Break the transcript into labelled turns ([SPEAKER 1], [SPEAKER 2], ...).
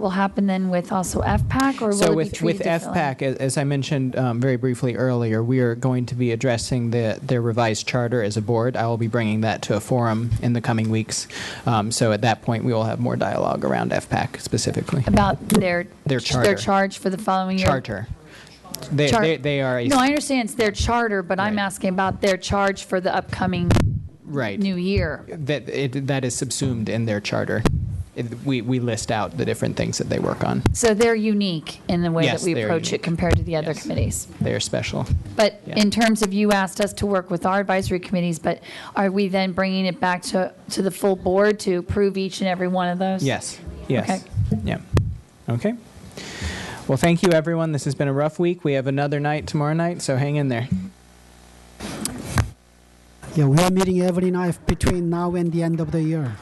[SPEAKER 1] will happen then with also FPAC, or will
[SPEAKER 2] So
[SPEAKER 1] it be
[SPEAKER 2] with, with
[SPEAKER 1] treated differently?
[SPEAKER 2] FPAC, a- as I mentioned um, very briefly earlier, we are going to be addressing the, their revised charter as a board. I will be bringing that to a forum in the coming weeks. Um, So at that point, we will have more dialogue around FPAC specifically.
[SPEAKER 1] About their.
[SPEAKER 2] Their
[SPEAKER 1] Their
[SPEAKER 2] charter.
[SPEAKER 1] charge for the following year?
[SPEAKER 2] Charter. They,
[SPEAKER 1] Char-
[SPEAKER 2] they, they are a.
[SPEAKER 1] No, I understand it's their charter, but I'm
[SPEAKER 2] Right.
[SPEAKER 1] asking about their charge for the upcoming
[SPEAKER 2] Right.
[SPEAKER 1] new year.
[SPEAKER 2] That, it, that is subsumed in their charter. It- We, we list out the different things that they work on.
[SPEAKER 1] So they're unique in the way that
[SPEAKER 2] Yes,
[SPEAKER 1] we
[SPEAKER 2] they're
[SPEAKER 1] approach it
[SPEAKER 2] unique.
[SPEAKER 1] compared to the other
[SPEAKER 2] Yes.
[SPEAKER 1] committees.
[SPEAKER 2] They are special.
[SPEAKER 1] But
[SPEAKER 2] Yeah.
[SPEAKER 1] in terms of, you asked us to work with our advisory committees, but are we then bringing it back to, to the full board to approve each and every one of those?
[SPEAKER 2] Yes, yes.
[SPEAKER 1] Okay.
[SPEAKER 2] Yeah. Okay. Well, thank you, everyone. This has been a rough week. We have another night tomorrow night, so hang in there.
[SPEAKER 3] Yeah, we are meeting every night between now and the end of the year.